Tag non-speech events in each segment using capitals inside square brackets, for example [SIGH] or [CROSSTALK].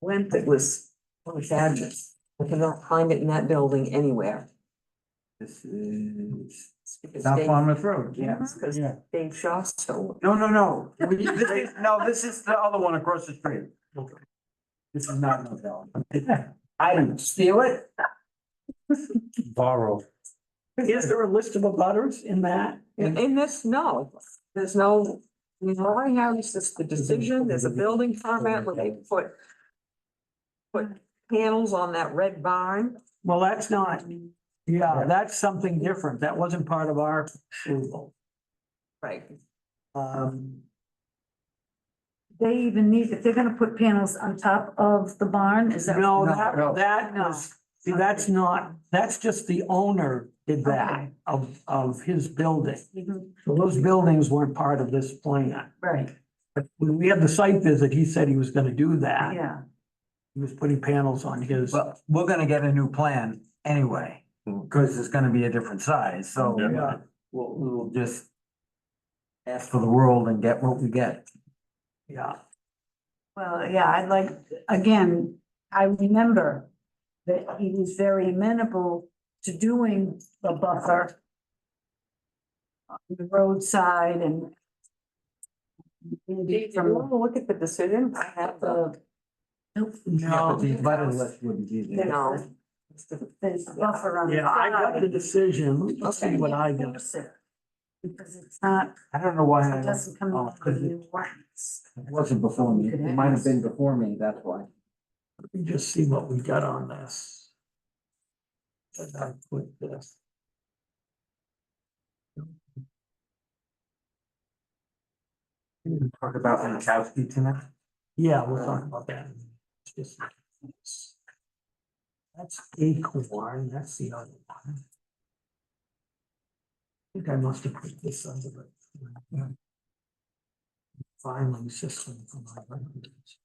went that was, it was fabulous. I cannot find it in that building anywhere. This is It's because South Dave- Falmouth Road, Yeah, yes. it's because Yeah. Dave Shaw stole No, no, no, We- this is, no, this is the other one across the street. This is not [LAUGHS] Novell. I didn't steal it. Borrow. Is there a list of abutters in that? it. In this, no, there's no, you know, I have, it's just the decision, there's a building permit where they put put panels on that red barn. Well, that's not, yeah, that's something different. That wasn't part of our approval. Right. Um, They even need, if they're gonna put panels on top of the barn, is that? no, No, that, no. that was, see, that's not, that's just the owner did that Okay. of, of his building. Mhm, So those buildings weren't part of this plan. Right, When we had the site visit, he said he was gonna do that. yeah. He was putting panels on his. But we're gonna get a new plan anyway, Hmm. because it's gonna be a different size, so. Yeah. We'll, we'll just ask for the world and get what we get. Yeah. Well, yeah, I'd like, again, I remember that he was very amenable to doing the buffer on the roadside and Did maybe you from want to look at the decision? I have uh, the, the Yeah, No. nope, but The butter list wouldn't be you there. know. there's buffer on the Yeah, I got the side. decision. Let's see what I got. Enforce it, Because it's not, I don't know why I it it doesn't come Oh, off because the it- new ones. wasn't before me. It might have been before me, that's why. Let me just see what we got on this. Did I put this? Talk about Lankowski tonight. Yeah, we'll talk about that. It's just- it's- That's acorn, that's the other one. I think I must have put this under the. Filing system for my records.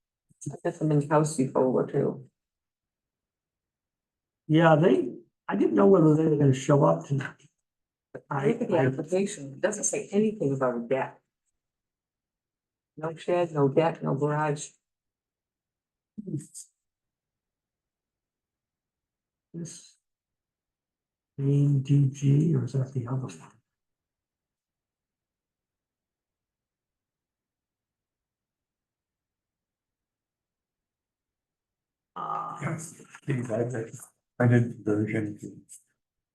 I got them in Kelsey folder too. Yeah, they, I didn't know whether they were gonna show up tonight. I I, look at the I application, it doesn't say anything about a deck. No shed, no deck, no garage. This. Main DG, or is that the other one? Uh, is I did version.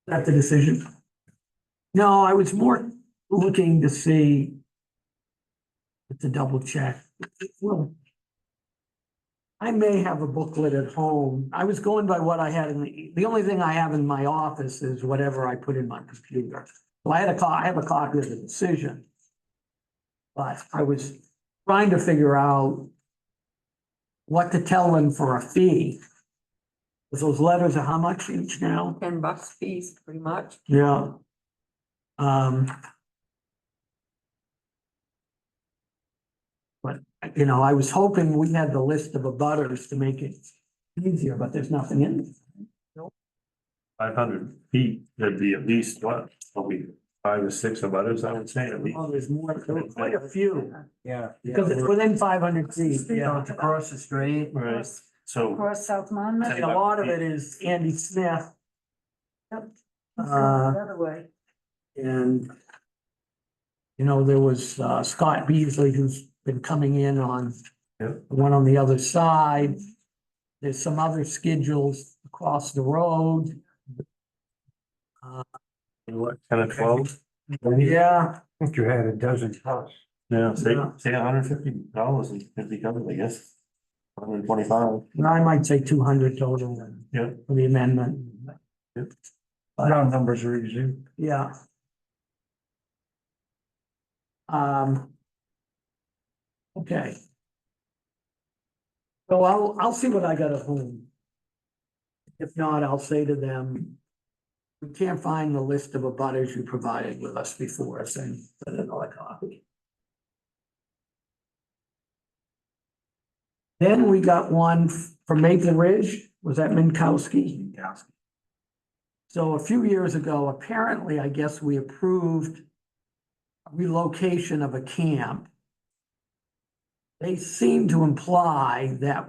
that the decision? No, I was more looking to see. To double check, well. I may have a booklet at home. I was going by what I had in the, the only thing I have in my office is whatever I put in my computer. So I had a co, I have a copy of the decision. But I was trying to figure out. What to tell them for a fee. 'Cause Those letters are how much each now? ten bucks fees, pretty much. Yeah. Um. But, you know, I was hoping we had the list of abutters to make it easier, but there's nothing in. it. Five hundred feet, there'd be at least what, probably five or six of others, I would say at least. Oh, there's more, there were quite a few, Yeah. because it's within five hundred feet, you Yeah, know. it's across the street. Right, so Across South Monmouth. And a lot of it is Andy Smith It's Uh, going the other way. and you know, there was uh, Scott Beasley who's been coming in on Yeah. the one on the other side. There's some other schedules across the road. what, ten or twelve? Yeah, I think you had a dozen plus. Yeah, say, Yeah. say hundred fifty dollars and fifty covers, I guess. Hundred twenty-five. and I might say two hundred total then Yeah. for the amendment. Round numbers are easy. Yeah. Um. Okay. So I'll, I'll see what I got at home. If not, I'll say to them, we can't find the list of abutters you provided with us before, send send another copy. Then we got one from Maple Ridge, was that Minkowski? So a few years ago, apparently, I guess we approved relocation of a camp. They seem to imply that